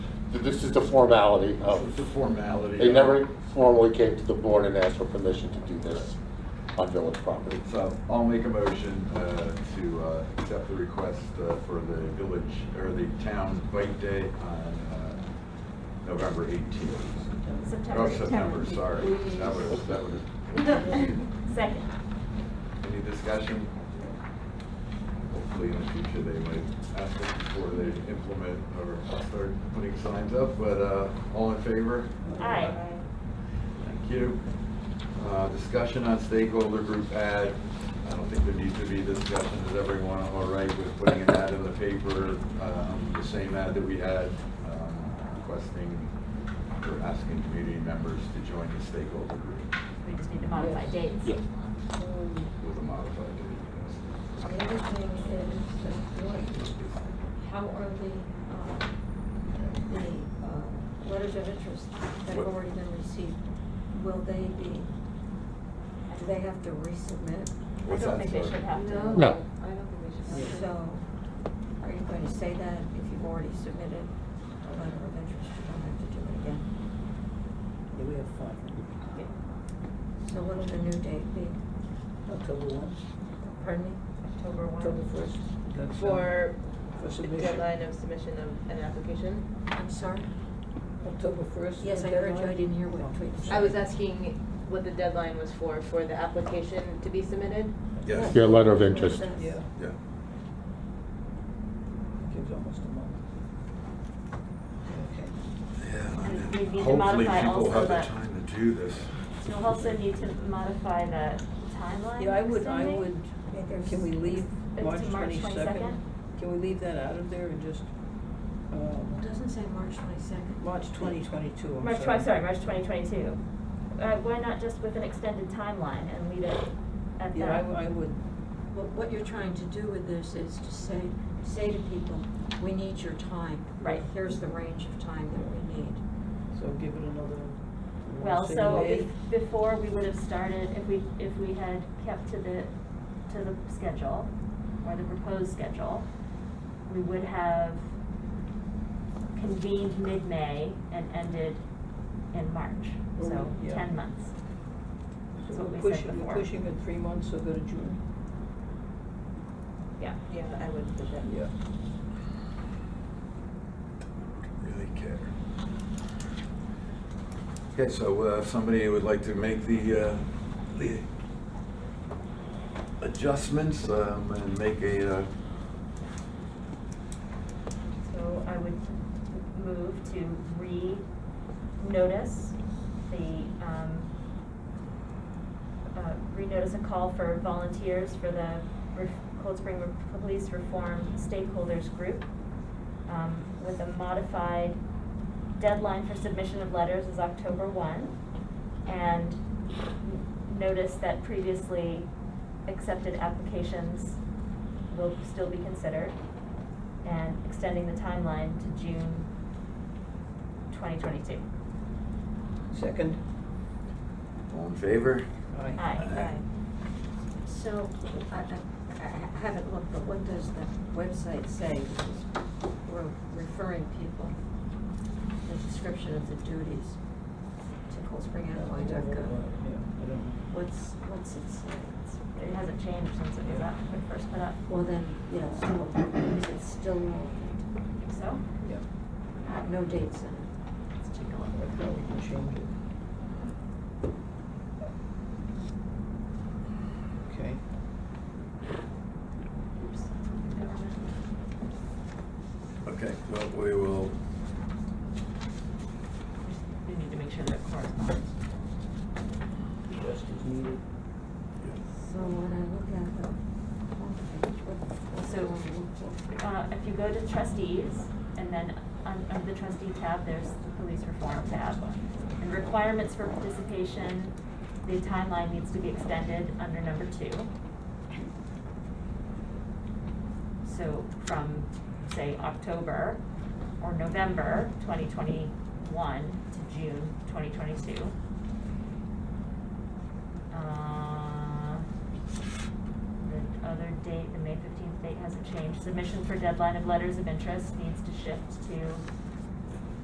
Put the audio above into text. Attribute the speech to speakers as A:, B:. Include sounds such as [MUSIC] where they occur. A: this is the formality
B: This is
A: of,
B: a formality.
A: Oh.
B: uh,
A: they never formally came to the board and asked for permission to do this on village property.
B: So I'll make a motion uh, to uh, accept the request uh, for the village, or the town bike day on uh, November 18th.
C: September.
B: Oh, September, sorry. That would, that would,
C: [LAUGHS] Second.
B: any discussion? Hopefully in the future they might ask us before they implement or start putting signs up, but uh, all in favor?
C: Aye.
B: Thank you. Uh, Discussion on stakeholder group ad. I don't think there needs to be discussion. Is everyone all right with putting an ad in the paper? um, The same ad that we had um, requesting or asking community members to join the stakeholder group
C: We just need to modify dates.
A: Yeah.
D: Um,
B: with a modified. date,
D: The other thing is, the board, how are the, uh, the uh, letters of interest that have already been received, will they be, do they have to resubmit?
C: I
B: What's
C: don't
B: that,
C: think they
B: sorry?
C: should have to.
A: No.
E: I don't think we should. have
D: So, are you going to say that if you've already submitted a letter of interest, you don't have to do it again?
F: Yeah, we have five.
D: So what'll the new date be?
F: October one,
D: Pardon me?
E: October
F: October
E: one.
F: first. that's, uh,
E: For
F: For
E: the
F: submission.
E: deadline of submission of an application.
D: I'm sorry?
F: October first.
D: Yes, I heard you, I didn't hear what tweet you said.
E: I was asking what the deadline was for, for the application to be submitted.
B: Yes.
A: Yeah, letter of interest.
F: Yeah,
B: Yeah.
F: gives almost a month.
C: And we need to
B: Hopefully
C: modify
B: people
C: also
B: have the
C: that-
B: time to do this.
C: You'll also need to modify the
F: Okay.
C: timeline.
F: Yeah, I would, I
C: extending.
F: would,
D: Yeah, there's-
F: can we leave
C: It's
F: March
C: March
F: twenty-second?
C: 22nd?
F: Can we leave that out of there and just,
D: It
F: um,
D: doesn't say March twenty-second.
F: March twenty twenty-two, I'm sorry.
C: March twenty, sorry, March twenty twenty-two. Uh, why not just with an extended timeline and leave it at that?
F: Yeah, I, I would,
D: Well, what you're trying to do with this is to say, say to people, we need your time.
C: Right.
D: Here's the range of time that we need.
F: so give it another. we'll
C: Well,
F: say
C: so
F: May.
C: if, before, we would have started, if we, if we had kept to the, to the schedule, or the proposed schedule, we would have convened mid-May and ended in March, so
F: Well, yeah.
C: ten months. is
F: So
C: what
F: we're
C: we said
F: pushing, we're
C: before.
F: pushing it three months, so go to June.
C: Yeah,
E: Yeah, I would put that.
F: Yeah.
B: really care. Okay, so uh, if somebody would like to make the, uh, the adjustments um, and make a, uh,
C: so I would move to re-notice the, um, uh, renotice a call for volunteers for the Ref- Cold Spring Re- Police Reform Stakeholders Group um, with a modified deadline for submission of letters is October 1. And n- notice that previously accepted applications will still be considered and extending the timeline to June 2022.
F: Second,
B: all in favor?
F: aye.
C: Aye.
D: So, I, I- I haven't looked, but what does the website say? Because We're referring people, the description of the duties to coldspringny.gov.
F: Yeah, I don't-
D: What's, what's it say? It's-
C: It hasn't changed since it was up, when first put up.
D: Well, then, yeah, so is it still relevant?
C: I think so.
F: Yeah,
D: No dates in it. Let's take a
F: I
D: look.
F: thought we can change it. Okay,
C: Oops. Never mind.
B: Okay, well, we will,
C: We need to make sure that it corresponds.
F: just as needed.
D: So when I look at the homepage, what, what's
C: So-
D: it want to look for?
C: Uh, if you go to trustees, and then on, under the trustee tab, there's the police reform tab. And requirements for participation, the timeline needs to be extended under number two. So from, say, October or November twenty twenty-one to June twenty twenty-two. Uh, the other date, the May fifteenth date hasn't changed. Submission for deadline of letters of interest needs to shift to